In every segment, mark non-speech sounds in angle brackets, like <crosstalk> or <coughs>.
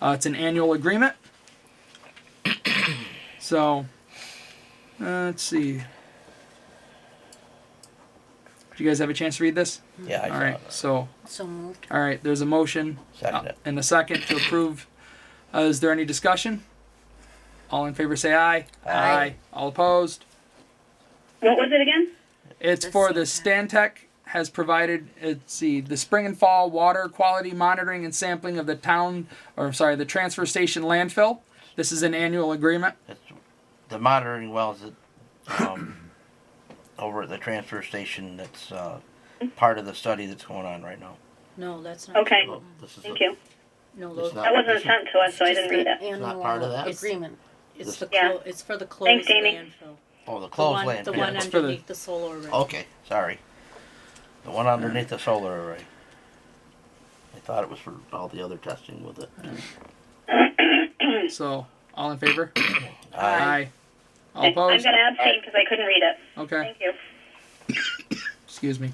Uh, it's an annual agreement. <coughs> so, uh, let's see. Do you guys have a chance to read this? Yeah, I All saw right. that. So, So moved. all right. There's a motion Second uh, it. and a second to approve. Uh, is there any discussion? All in favor, say aye. Aye. All opposed. What was it again? It's The for the Stantec. Stantec has provided, let's see, the spring and fall water quality monitoring and sampling of the town, or sorry, the transfer station landfill. This is an annual agreement. It's the monitoring wells that, um, <coughs> over at the transfer station that's, uh, Mm-hmm. part of the study that's going on right now. No, that's not. Okay, Well, this is thank the- you. No, It's those. not- That wasn't sent to us, so Oh, I didn't read it. It's not part of that? Agreement. It's the, Yeah. clo- it's for the Thanks, closed Amy. landfill. Oh, the The closed one, land. the yeah. one It's for the- underneath the solar array. Okay, sorry. The one underneath the solar array. I thought it was for all the other testing with it. So, all in favor? Aye. Uh, All Okay, I'm opposed? gonna abstain because I couldn't read it. Okay, Thank you. excuse me.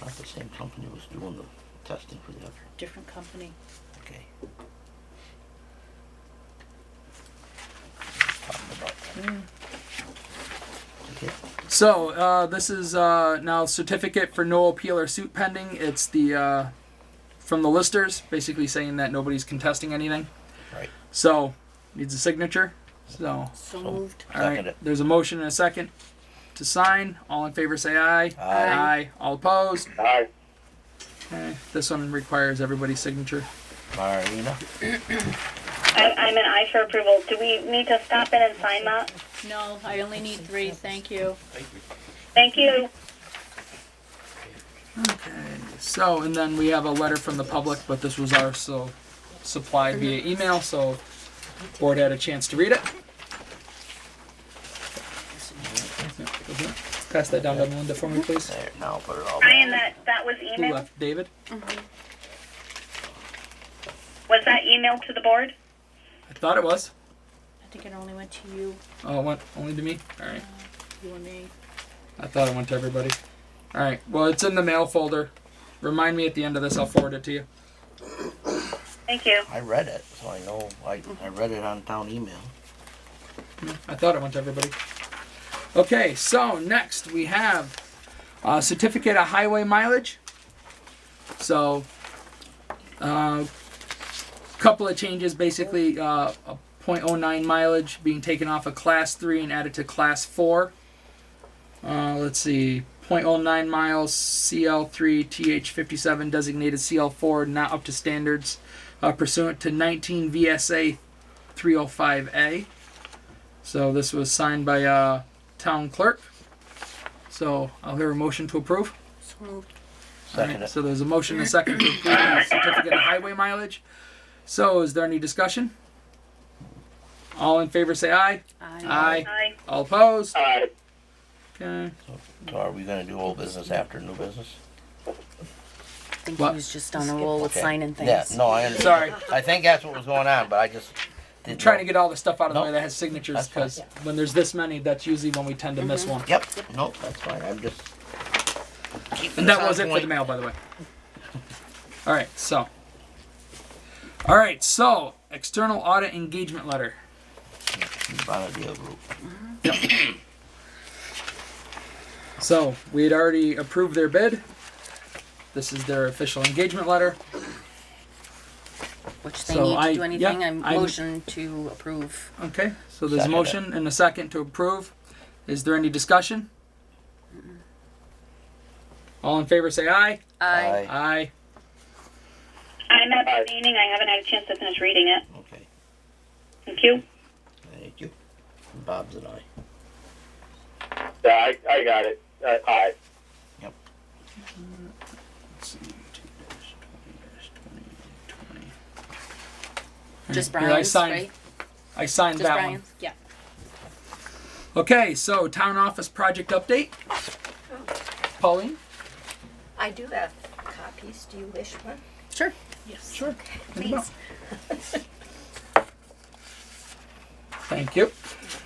I thought the same company was doing the testing for the other. Different company. Okay. Something about that. Okay. So, uh, this is, uh, now certificate for no appeal or suit pending. It's the, uh, from the listers, basically saying that nobody's contesting anything. Right. So, needs a signature, so. So So- moved. All right. Second it. There's a motion and a second to sign. All in favor, say aye. Aye. All opposed. Aye. Okay. This one requires everybody's signature. Marina, I, I'm an aye for approval. Do we need to stop in and sign that? No, I only need three, thank you. Thank you. So, and then we have a letter from the public, but this was also supplied via email, so board had a chance to read it. Pass that down to Melinda for me, please. there, now put it all back. Ryan, that, that was Who email. left? David? Was that email to the board? I thought it was. I think it only went to you, Oh, it went only to me? All right. you and me. I thought it went to everybody. All right. Well, it's in the mail folder. Remind me at the end of this. I'll forward it to you. Thank you. I read it, so I know, I, I read it on town email. I thought it went to everybody. Okay. So next we have a certificate of highway mileage. So, uh, couple of changes. Basically, uh, a 0.09 mileage being taken off of class three and added to class four. Uh, let's see. 0.09 miles CL3 TH57 designated CL4 not up to standards uh, pursuant to 19 VSA 305A. So this was signed by uh, town clerk. So I'll hear a motion to approve. So moved. Second Alright, it. So there's a motion and a second to approve the certificate of highway mileage. So is there any discussion? All in favor say aye. Uh, Aye. Aye. Aye. All opposed? Aye. Okay. So are we gonna do old business after new business? I think he he What? was just on a roll with Okay. signing things. Yeah, no, I understand. Sorry. I think that's what was going on, but I just didn't. Trying know. to get all the stuff out of the way Nope. that has signatures That's fine. because when there's this many, that's usually when we tend to miss one. Yep, nope, that's fine, I'm just. keeping And this that on was it for the point. mail, by the way. All right, so. All right, so external audit engagement letter. Bonneville Group. So we had already approved their bid. This is their official engagement letter. Which they So need I- to do yeah, anything, I'm I'm- motion to approve. Okay, so there's a Second it. motion and a second to approve. Is there any discussion? All in favor say aye. Aye. Aye. I'm abstaining. I haven't had a chance to finish reading it. Okay, Thank you. thank you. Bob's and I. Yeah, I, I got it. Uh, aye. Let's see, two dash, twenty dash, twenty, twenty. Just Here, I Brian's, signed right? I signed Just that one. Brian's, yeah. Okay, so town office project update. Pauline? I do have copies. Do you wish one? Sure. Yes. Sure. Please. Thank you.